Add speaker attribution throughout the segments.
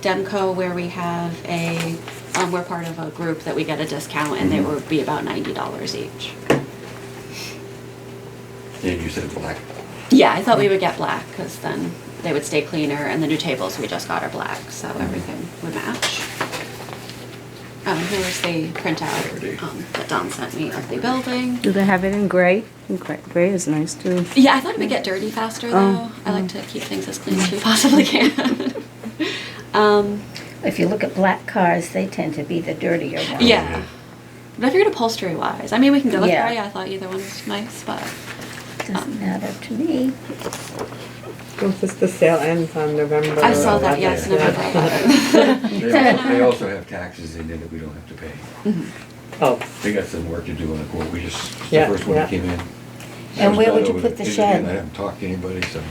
Speaker 1: Demco where we have a, um, we're part of a group that we get a discount and they would be about ninety dollars each.
Speaker 2: And you said black.
Speaker 1: Yeah, I thought we would get black because then they would stay cleaner and the new tables we just got are black, so everything would match. Um, here's the printout, um, that Don sent me of the building.
Speaker 3: Do they have it in gray? In gray gray is nice too.
Speaker 1: Yeah, I thought it would get dirty faster though.
Speaker 3: Oh,
Speaker 1: I like to keep things as clean as we possibly can. um,
Speaker 4: If you look at black cars, they tend to be the dirtier ones.
Speaker 1: yeah. But I figured upholstery wise. I mean, we can go with
Speaker 4: Yeah.
Speaker 1: gray. I thought either one was nice, but
Speaker 4: Doesn't matter to me.
Speaker 5: Well, just the sale ends on November.
Speaker 1: I saw that. Yes,
Speaker 2: yeah.
Speaker 1: never thought
Speaker 2: They also, they also have taxes in there that we don't have to pay.
Speaker 5: Oh,
Speaker 2: They got some work to do on the court, we just, it's the
Speaker 5: Yeah,
Speaker 2: first one that
Speaker 5: yeah.
Speaker 2: came in.
Speaker 4: And where would you
Speaker 2: Over
Speaker 4: put the
Speaker 2: internet,
Speaker 4: shed?
Speaker 2: I haven't talked to anybody, so.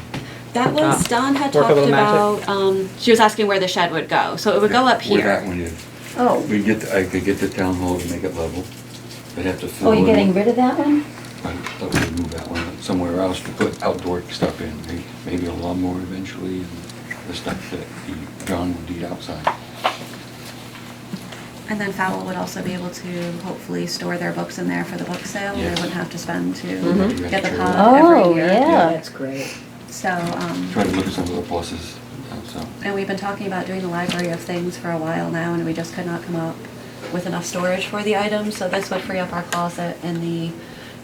Speaker 1: That was Don had
Speaker 5: Work a
Speaker 1: talked
Speaker 5: little magic.
Speaker 1: about. Um, she was asking where the shed would go, so it would go up
Speaker 2: Where that
Speaker 1: here.
Speaker 2: one is.
Speaker 4: Oh,
Speaker 2: We get, the- I could get the town hall to make it level. I'd have to fill.
Speaker 4: oh, you're
Speaker 2: in-
Speaker 4: getting rid of that one?
Speaker 2: I thought we'd move that one somewhere else to put outdoor stuff in, may- maybe a lawnmower eventually and the stuff that he- John would need outside.
Speaker 1: And then Fowl would also be able to hopefully store their books in there for the book sale. They
Speaker 2: Yes.
Speaker 1: wouldn't have to spend to
Speaker 2: Mhm.
Speaker 1: get the pod
Speaker 3: Oh,
Speaker 1: every year.
Speaker 3: yeah.
Speaker 4: That's great.
Speaker 1: So. Um,
Speaker 2: Try to look at some of the pluses, uh, so.
Speaker 1: And we've been talking about doing the library of things for a while now, and we just could not come up with enough storage for the items, so this would free up our closet in the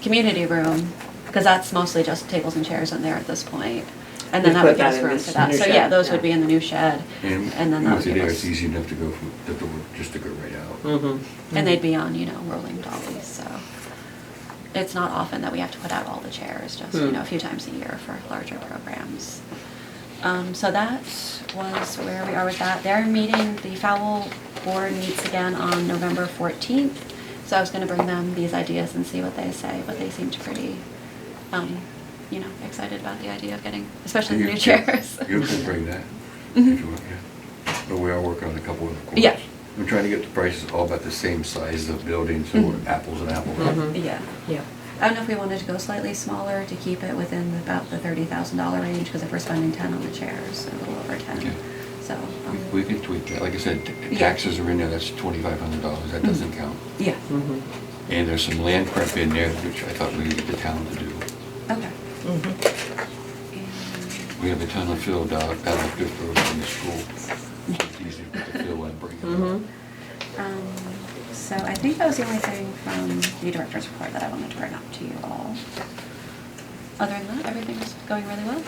Speaker 1: community room, because that's mostly just tables and chairs in there at this point. And then
Speaker 5: We
Speaker 1: that would give
Speaker 5: put that
Speaker 1: us
Speaker 5: in
Speaker 1: room
Speaker 5: this
Speaker 1: for that,
Speaker 5: new
Speaker 1: so yeah,
Speaker 5: shed,
Speaker 1: those would
Speaker 5: yeah.
Speaker 1: be in the new shed,
Speaker 2: And
Speaker 1: and then that would
Speaker 2: once
Speaker 1: give
Speaker 2: there,
Speaker 1: us,
Speaker 2: it's easy enough to go from the door, just to go right out.
Speaker 5: mm-hmm.
Speaker 1: and they'd be on, you know, rolling dollies, so. It's not often that we have to put out all the chairs, just, you
Speaker 5: Hmm.
Speaker 1: know, a few times a year for larger programs. Um, so that was where we are with that. They're meeting, the Fowl Board meets again on November 14th. So I was going to bring them these ideas and see what they say, but they seemed pretty, um, you know, excited about the idea of getting, especially the
Speaker 2: You
Speaker 1: new
Speaker 2: can-
Speaker 1: chairs.
Speaker 2: You can bring that,
Speaker 1: Mhm.
Speaker 2: if you want, yeah. But we are working on a couple of the corners.
Speaker 1: Yeah.
Speaker 2: We're trying to get the prices all about the same size of building, so we're
Speaker 1: Mhm.
Speaker 2: apples and apples.
Speaker 5: Mhm.
Speaker 1: Yeah.
Speaker 6: Yeah.
Speaker 1: I don't know if we wanted to go slightly smaller to keep it within about the $30,000 range, because if we're spending 10 on the chairs, a little over 10.
Speaker 2: Okay.
Speaker 1: So.
Speaker 2: We-
Speaker 1: um,
Speaker 2: We can tweak that, like I said, t-
Speaker 1: Yeah.
Speaker 2: taxes are in there, that's twenty-five hundred dollars, that doesn't count.
Speaker 1: Yeah,
Speaker 5: Mm-hmm.
Speaker 2: And there's some land prep in there, which I thought we needed the town to do.
Speaker 1: okay.
Speaker 5: Mm-hmm.
Speaker 1: And-
Speaker 2: We have a ton of uh, fill down, down at Fifth Road in the school. It's easy to put the fill and bring it up.
Speaker 5: Mm-hmm.
Speaker 1: Um, So I think that was the only thing from the director's report that I wanted to bring up to you all. Other than that, everything's going really well.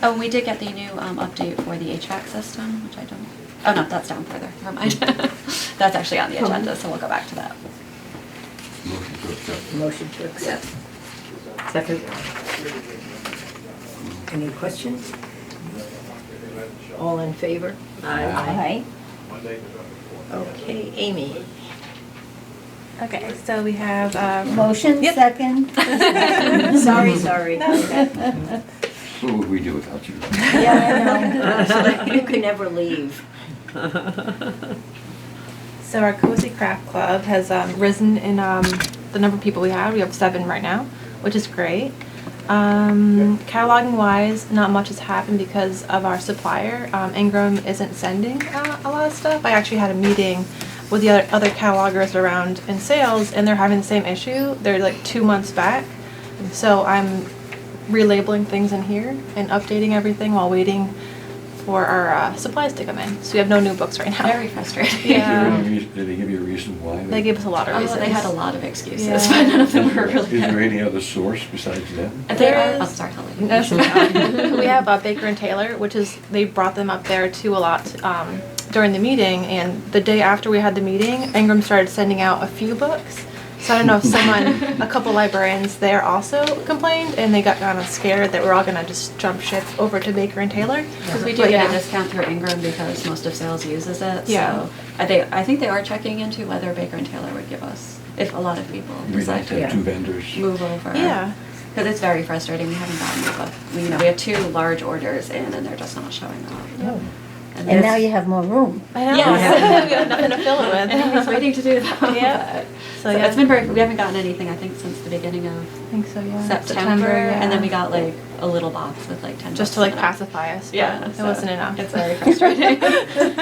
Speaker 1: Oh, and we did get the new um, update for the HVAC system, which I don't, oh no, that's down further, never mind. That's actually on the agenda, so we'll go back to that.
Speaker 2: Motion to accept.
Speaker 6: Motion to accept. Second. Any questions? All in favor?
Speaker 4: Aye.
Speaker 6: Okay, Amy.
Speaker 7: Okay, so we have, um,
Speaker 4: Motion, second.
Speaker 6: Sorry, sorry.
Speaker 2: What would we do without you?
Speaker 6: Yeah, I know. You can never leave.
Speaker 7: so our Cozy Craft Club has um, risen in um, the number of people we have. We have seven right now, which is great. Um, cataloging wise, not much has happened because of our supplier. Um, Ingram isn't sending uh, a lot of stuff. I actually had a meeting with the other, other catalogers around in sales, and they're having the same issue. They're like two months back. So I'm relabeling things in here and updating everything while waiting for our uh, supplies to come in. So we have no new books right now.
Speaker 1: Very frustrating.
Speaker 2: Is there
Speaker 7: Yeah.
Speaker 2: any reas- Did they give you a reason why?
Speaker 7: They gave us a lot of
Speaker 1: Oh,
Speaker 7: reasons.
Speaker 1: they had a lot of excuses,
Speaker 7: Yeah.
Speaker 1: but none of
Speaker 2: Is
Speaker 1: them were
Speaker 2: there-
Speaker 1: really
Speaker 2: Is there
Speaker 1: good.
Speaker 2: any other source besides them?
Speaker 1: They are,
Speaker 7: There
Speaker 1: oh,
Speaker 7: is-
Speaker 1: sorry, Holly.
Speaker 7: No, it's not. we have uh, Baker and Taylor, which is they brought them up there too a lot um, during the meeting. And the day after we had the meeting, Ingram started sending out a few books. So I don't know if someone, a couple librarians there also complained, and they got kind of scared that we're all gonna just jump ship over to Baker and Taylor.
Speaker 1: Because we do
Speaker 7: But
Speaker 1: get a
Speaker 7: yeah.
Speaker 1: discount through Ingram because most of sales uses it.
Speaker 7: Yeah.
Speaker 1: So I think, I think they are checking into whether Baker and Taylor would give us, if a lot of people
Speaker 2: We'd
Speaker 1: decide
Speaker 2: like
Speaker 1: to
Speaker 2: to have two vendors.
Speaker 1: move over.
Speaker 7: Yeah.
Speaker 1: Because it's very frustrating. We haven't gotten it, but, we- you know, we have two large orders in and they're just not showing up.
Speaker 4: And now you have more room.
Speaker 7: I know.
Speaker 1: Yes.
Speaker 7: we have nothing to fill it with.
Speaker 1: Anybody's waiting to do that.
Speaker 7: Yeah.
Speaker 1: but-
Speaker 7: So,
Speaker 1: So
Speaker 7: yeah.
Speaker 1: it's been very, we haven't gotten anything, I think, since the beginning of
Speaker 7: I think so. Yeah.
Speaker 1: September. And then
Speaker 7: yeah.
Speaker 1: we got like a little box with like 10
Speaker 7: just
Speaker 1: books
Speaker 7: to like
Speaker 1: in it.
Speaker 7: pacify us. but
Speaker 1: Yeah.
Speaker 7: It
Speaker 1: so
Speaker 7: wasn't enough.
Speaker 1: It's very frustrating.